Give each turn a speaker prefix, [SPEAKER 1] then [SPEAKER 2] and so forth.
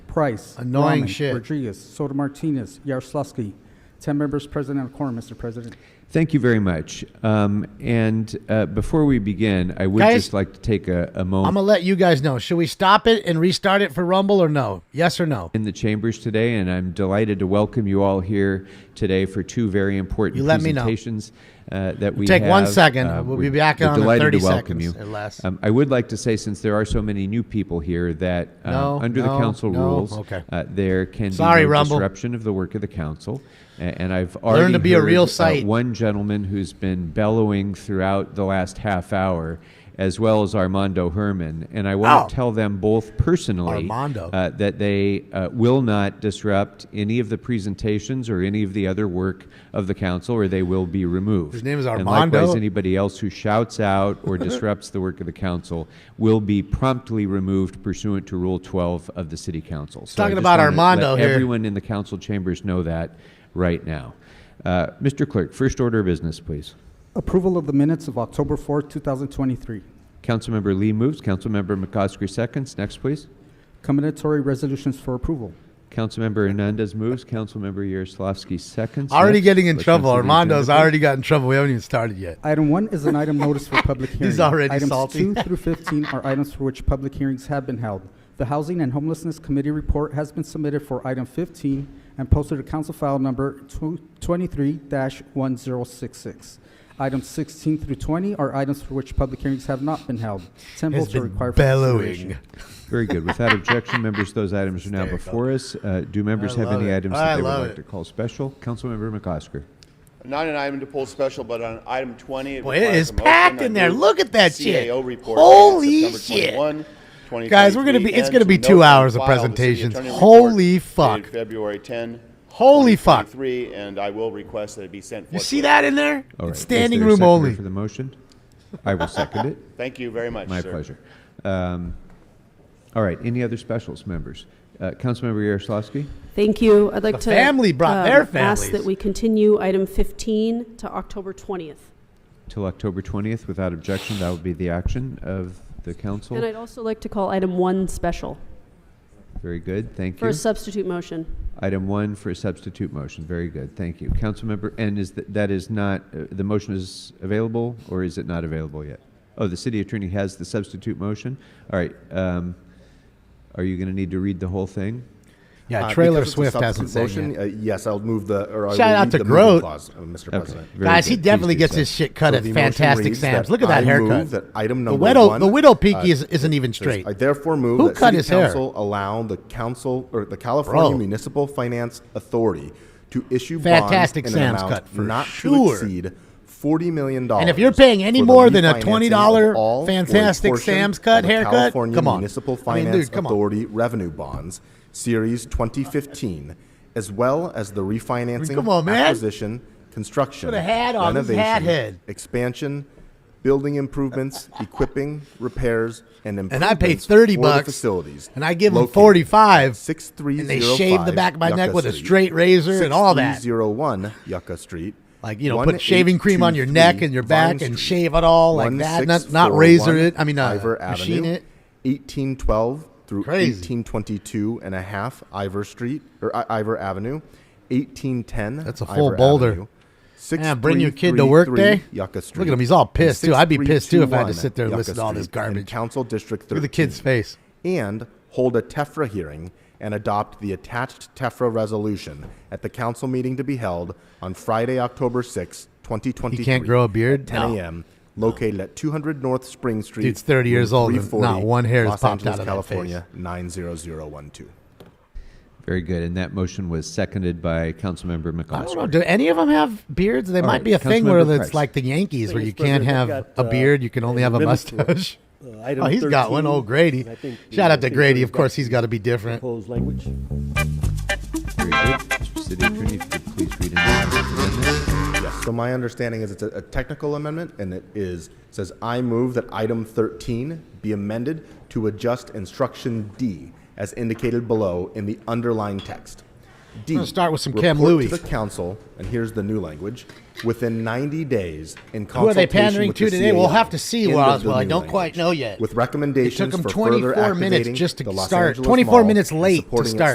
[SPEAKER 1] Price.
[SPEAKER 2] Annoying
[SPEAKER 1] Rahman,
[SPEAKER 2] shit.
[SPEAKER 1] Rodriguez, Soto Martinez, Yaroslavsky. Ten members present and a quorum, Mr. President.
[SPEAKER 3] Thank you very much. Um, and uh, before we begin, I would
[SPEAKER 2] Guys,
[SPEAKER 3] just like to take a, a
[SPEAKER 2] I'm
[SPEAKER 3] moment
[SPEAKER 2] gonna let you guys know. Should we stop it and restart it for Rumble or no? Yes or no?
[SPEAKER 3] in the chambers today, and I'm delighted to welcome you all here today for two very important
[SPEAKER 2] You let me know.
[SPEAKER 3] presentations uh, that we
[SPEAKER 2] Take one
[SPEAKER 3] have. uh,
[SPEAKER 2] second. We'll be
[SPEAKER 3] we're-
[SPEAKER 2] back
[SPEAKER 3] we're
[SPEAKER 2] on in
[SPEAKER 3] delighted
[SPEAKER 2] 30
[SPEAKER 3] to welcome
[SPEAKER 2] seconds
[SPEAKER 3] you.
[SPEAKER 2] at last.
[SPEAKER 3] Um, I would like to say, since there are so many new people here, that uh,
[SPEAKER 2] No,
[SPEAKER 3] under the
[SPEAKER 2] no,
[SPEAKER 3] council
[SPEAKER 2] no.
[SPEAKER 3] rules,
[SPEAKER 2] Okay.
[SPEAKER 3] uh, there can
[SPEAKER 2] Sorry,
[SPEAKER 3] be no
[SPEAKER 2] Rumble.
[SPEAKER 3] disruption of the work of the council. A- And I've already
[SPEAKER 2] to be a
[SPEAKER 3] heard,
[SPEAKER 2] real
[SPEAKER 3] uh,
[SPEAKER 2] sight.
[SPEAKER 3] one gentleman who's been bellowing throughout the last half hour, as well as Armando Herman, and I want
[SPEAKER 2] Oh.
[SPEAKER 3] to tell them both personally
[SPEAKER 2] Armando.
[SPEAKER 3] uh, that they uh, will not disrupt any of the presentations or any of the other work of the council, or they will be removed.
[SPEAKER 2] His name is
[SPEAKER 3] And likewise,
[SPEAKER 2] Armando.
[SPEAKER 3] anybody else who shouts out or disrupts the work of the council will be promptly removed pursuant to Rule 12 of the City Council. So I
[SPEAKER 2] Talking
[SPEAKER 3] just
[SPEAKER 2] about
[SPEAKER 3] wanna
[SPEAKER 2] Armando
[SPEAKER 3] let
[SPEAKER 2] here.
[SPEAKER 3] Everyone in the council chambers know that right now. Uh, Mr. Clerk, first order of business, please.
[SPEAKER 1] Approval of the minutes of October 4th, 2023.
[SPEAKER 3] Councilmember Lee moves. Councilmember McCosker seconds. Next, please.
[SPEAKER 1] Combinatory resolutions for approval.
[SPEAKER 3] Councilmember Hernandez moves. Councilmember Yaroslavsky seconds.
[SPEAKER 2] Already
[SPEAKER 3] Next,
[SPEAKER 2] getting in
[SPEAKER 3] let's
[SPEAKER 2] trouble.
[SPEAKER 3] come to the
[SPEAKER 2] Armando's
[SPEAKER 3] agenda, please.
[SPEAKER 2] already got in trouble. We haven't even started yet.
[SPEAKER 1] Item one is an item notice for public hearing.
[SPEAKER 2] already
[SPEAKER 1] items
[SPEAKER 2] salty.
[SPEAKER 1] two through fifteen are items for which public hearings have been held. The Housing and Homelessness Committee report has been submitted for item fifteen and posted to council file number twenty-three one zero six six. Items sixteen through twenty are items for which public hearings have not been held. Ten
[SPEAKER 2] Has
[SPEAKER 1] votes are
[SPEAKER 2] been
[SPEAKER 1] required for
[SPEAKER 2] bellowing.
[SPEAKER 1] consideration.
[SPEAKER 3] Very good. Without objection, members, those items are now before us. Uh, Do members
[SPEAKER 2] I
[SPEAKER 3] have
[SPEAKER 2] love
[SPEAKER 3] any
[SPEAKER 2] it.
[SPEAKER 3] items
[SPEAKER 2] I
[SPEAKER 3] that they would
[SPEAKER 2] love
[SPEAKER 3] like
[SPEAKER 2] it.
[SPEAKER 3] to call special? Councilmember McCosker.
[SPEAKER 4] Not an item to pull special, but on item 20.
[SPEAKER 2] Boy, it
[SPEAKER 4] requires
[SPEAKER 2] is
[SPEAKER 4] a motion.
[SPEAKER 2] packed
[SPEAKER 4] I
[SPEAKER 2] in there.
[SPEAKER 4] move
[SPEAKER 2] Look at that
[SPEAKER 4] the
[SPEAKER 2] shit.
[SPEAKER 4] CAO report
[SPEAKER 2] Holy
[SPEAKER 4] dated September
[SPEAKER 2] shit.
[SPEAKER 4] 21, 2023,
[SPEAKER 2] Guys, we're gonna be- it's
[SPEAKER 4] and
[SPEAKER 2] gonna be
[SPEAKER 4] to
[SPEAKER 2] two
[SPEAKER 4] note and
[SPEAKER 2] hours of
[SPEAKER 4] file the city
[SPEAKER 2] presentations.
[SPEAKER 4] attorney report
[SPEAKER 2] Holy
[SPEAKER 4] dated
[SPEAKER 2] fuck.
[SPEAKER 4] February 10.
[SPEAKER 2] Holy fuck.
[SPEAKER 4] 2023, And I will request that it be sent.
[SPEAKER 2] You
[SPEAKER 4] forthwith.
[SPEAKER 2] see that in there?
[SPEAKER 3] All right.
[SPEAKER 2] It's
[SPEAKER 3] Is
[SPEAKER 2] standing
[SPEAKER 3] there a
[SPEAKER 2] room
[SPEAKER 3] seconder
[SPEAKER 2] only.
[SPEAKER 3] For the motion? I will second it.
[SPEAKER 4] Thank you very much,
[SPEAKER 3] My
[SPEAKER 4] sir.
[SPEAKER 3] pleasure. Um, All right. Any other specials, members? Uh, Councilmember Yaroslavsky?
[SPEAKER 5] Thank you. I'd like
[SPEAKER 2] The
[SPEAKER 5] to um,
[SPEAKER 2] family brought their families.
[SPEAKER 5] ask that we continue item 15 to October 20th.
[SPEAKER 3] Till October 20th, without objection, that would be the action of the
[SPEAKER 5] And
[SPEAKER 3] council.
[SPEAKER 5] I'd also like to call item 1 special
[SPEAKER 3] Very good. Thank
[SPEAKER 5] for
[SPEAKER 3] you.
[SPEAKER 5] a substitute motion.
[SPEAKER 3] Item one for a substitute motion. Very good. Thank you. Councilmember, and is that, that is not, uh, the motion is available or is it not available yet? Oh, the city attorney has the substitute motion. All right. Um, are you going to need to read the whole thing?
[SPEAKER 2] Yeah,
[SPEAKER 6] Uh,
[SPEAKER 2] Trailer
[SPEAKER 6] because it's a
[SPEAKER 2] Swift
[SPEAKER 6] substitute
[SPEAKER 2] hasn't said
[SPEAKER 6] motion,
[SPEAKER 2] yet.
[SPEAKER 6] uh, Yes, I'll move the, or I
[SPEAKER 2] Shout
[SPEAKER 6] will
[SPEAKER 2] out
[SPEAKER 6] read
[SPEAKER 2] to
[SPEAKER 6] the moving
[SPEAKER 2] Grote.
[SPEAKER 6] clause, uh, Mr.
[SPEAKER 3] Okay.
[SPEAKER 6] President.
[SPEAKER 3] Very
[SPEAKER 2] Guys, he
[SPEAKER 3] good. Please
[SPEAKER 2] definitely
[SPEAKER 3] do
[SPEAKER 2] gets
[SPEAKER 3] so.
[SPEAKER 2] his shit cut
[SPEAKER 6] So
[SPEAKER 2] at
[SPEAKER 6] the motion
[SPEAKER 2] Fantastic
[SPEAKER 6] reads
[SPEAKER 2] Sam's. Look at
[SPEAKER 6] I
[SPEAKER 2] that
[SPEAKER 6] move
[SPEAKER 2] haircut.
[SPEAKER 6] that item
[SPEAKER 2] the
[SPEAKER 6] number
[SPEAKER 2] widow,
[SPEAKER 6] one,
[SPEAKER 2] the widow
[SPEAKER 6] uh,
[SPEAKER 2] peaky is, isn't even
[SPEAKER 6] It says,
[SPEAKER 2] straight.
[SPEAKER 6] I therefore move
[SPEAKER 2] Who
[SPEAKER 6] that
[SPEAKER 2] cut
[SPEAKER 6] City
[SPEAKER 2] his hair?
[SPEAKER 6] Council allow the council or the California
[SPEAKER 2] Bro.
[SPEAKER 6] Municipal Finance Authority to issue
[SPEAKER 2] Fantastic
[SPEAKER 6] bonds in
[SPEAKER 2] Sam's
[SPEAKER 6] an amount
[SPEAKER 2] cut for
[SPEAKER 6] not
[SPEAKER 2] sure.
[SPEAKER 6] to exceed forty million dollars.
[SPEAKER 2] And if you're paying any more than a $20 Fantastic Sam's cut
[SPEAKER 6] of the
[SPEAKER 2] haircut,
[SPEAKER 6] California
[SPEAKER 2] come on. I
[SPEAKER 6] Municipal
[SPEAKER 2] mean,
[SPEAKER 6] Finance
[SPEAKER 2] dude, come on.
[SPEAKER 6] Authority revenue bonds, Series 2015, as well as the refinancing,
[SPEAKER 2] come on, man.
[SPEAKER 6] acquisition, construction,
[SPEAKER 2] Put a hat on. This is
[SPEAKER 6] renovation,
[SPEAKER 2] hat head.
[SPEAKER 6] expansion, building improvements, equipping, repairs, and
[SPEAKER 2] and I pay
[SPEAKER 6] improvements
[SPEAKER 2] thirty
[SPEAKER 6] for the
[SPEAKER 2] bucks.
[SPEAKER 6] facilities,
[SPEAKER 2] and I give them
[SPEAKER 6] located
[SPEAKER 2] forty-five.
[SPEAKER 6] at 6305
[SPEAKER 2] and they shave the back of my
[SPEAKER 6] Yucca
[SPEAKER 2] neck with a
[SPEAKER 6] Street,
[SPEAKER 2] straight razor and all that.
[SPEAKER 6] 6301 Yucca Street.
[SPEAKER 2] Like you know, put shaving cream on your neck and your
[SPEAKER 6] 1823
[SPEAKER 2] back,
[SPEAKER 6] Vine
[SPEAKER 2] and
[SPEAKER 6] Street,
[SPEAKER 2] shave it all like that. Not, not
[SPEAKER 6] 16401
[SPEAKER 2] razor it. I mean, uh,
[SPEAKER 6] Ivor
[SPEAKER 2] machine
[SPEAKER 6] Avenue,
[SPEAKER 2] it.
[SPEAKER 6] 1812 through
[SPEAKER 2] Crazy.
[SPEAKER 6] 1822 and a half Ivor Street or I- Ivor Avenue, 1810.
[SPEAKER 2] That's a
[SPEAKER 6] Ivor
[SPEAKER 2] full boulder.
[SPEAKER 6] Avenue,
[SPEAKER 2] Man, bring your kid to work
[SPEAKER 6] 6333
[SPEAKER 2] day?
[SPEAKER 6] Yucca
[SPEAKER 2] Look at
[SPEAKER 6] Street.
[SPEAKER 2] him, he's all pissed,
[SPEAKER 6] and
[SPEAKER 2] too. I'd be pissed, too, if I had to
[SPEAKER 6] 6321
[SPEAKER 2] sit there and
[SPEAKER 6] Yucca
[SPEAKER 2] listen to all this
[SPEAKER 6] Street and
[SPEAKER 2] garbage.
[SPEAKER 6] Council District 13.
[SPEAKER 2] Look at the kid's face.
[SPEAKER 6] And hold a TEFRA hearing and adopt the attached TEFRA resolution at the council meeting to be held on Friday, October 6, 2023.
[SPEAKER 2] He can't grow a beard?
[SPEAKER 6] at 10
[SPEAKER 2] No.
[SPEAKER 6] a.m. Located at 200 North Spring Street.
[SPEAKER 2] Dude's 30 years
[SPEAKER 6] room
[SPEAKER 2] old and
[SPEAKER 6] 340,
[SPEAKER 2] not one hair has
[SPEAKER 6] Los
[SPEAKER 2] popped
[SPEAKER 6] Angeles,
[SPEAKER 2] out of that
[SPEAKER 6] California, 90012.
[SPEAKER 3] Very good. And that motion was seconded by Councilmember McCosker.
[SPEAKER 2] I don't know. Do any of them have beards? There
[SPEAKER 3] All
[SPEAKER 2] might
[SPEAKER 3] right,
[SPEAKER 2] be a thing where
[SPEAKER 3] Councilmember
[SPEAKER 2] it's
[SPEAKER 3] Price.
[SPEAKER 2] like the Yankees, where
[SPEAKER 7] Mr.
[SPEAKER 2] you can't have
[SPEAKER 7] President, I've got,
[SPEAKER 2] a
[SPEAKER 7] uh,
[SPEAKER 2] beard, you can only have a
[SPEAKER 7] amendments for,
[SPEAKER 2] mustache.
[SPEAKER 7] uh, item
[SPEAKER 2] Oh, he's got one.
[SPEAKER 7] 13.
[SPEAKER 2] Old Grady.
[SPEAKER 7] I think the-
[SPEAKER 2] Shout
[SPEAKER 7] I
[SPEAKER 2] out to
[SPEAKER 7] think
[SPEAKER 2] Grady.
[SPEAKER 7] we've
[SPEAKER 2] Of course,
[SPEAKER 7] got
[SPEAKER 2] he's got to be different.
[SPEAKER 7] Proposed language.
[SPEAKER 3] Very good. Mr. City Attorney, if you could please read it.
[SPEAKER 6] Yes. So my understanding is it's a, a technical amendment, and it is says I move that item 13 be amended to adjust instruction D as indicated below in the underlined text. D.
[SPEAKER 2] gonna start with some Cam
[SPEAKER 6] report
[SPEAKER 2] Louis.
[SPEAKER 6] to the council, and here's the new language, within 90 days in
[SPEAKER 2] Who are they
[SPEAKER 6] consultation
[SPEAKER 2] pandering
[SPEAKER 6] with
[SPEAKER 2] to
[SPEAKER 6] the
[SPEAKER 2] today? We'll
[SPEAKER 6] CAO.
[SPEAKER 2] have to see,
[SPEAKER 6] End
[SPEAKER 2] Well,
[SPEAKER 6] of the
[SPEAKER 2] Oswald. I
[SPEAKER 6] new
[SPEAKER 2] don't quite
[SPEAKER 6] language.
[SPEAKER 2] know yet. It
[SPEAKER 6] With
[SPEAKER 2] took
[SPEAKER 6] recommendations
[SPEAKER 2] them
[SPEAKER 6] for further
[SPEAKER 2] 24 minutes
[SPEAKER 6] activating
[SPEAKER 2] just to
[SPEAKER 6] the Los
[SPEAKER 2] start.
[SPEAKER 6] Angeles
[SPEAKER 2] 24
[SPEAKER 6] Mall
[SPEAKER 2] minutes
[SPEAKER 6] and
[SPEAKER 2] late to
[SPEAKER 6] supporting its
[SPEAKER 2] start.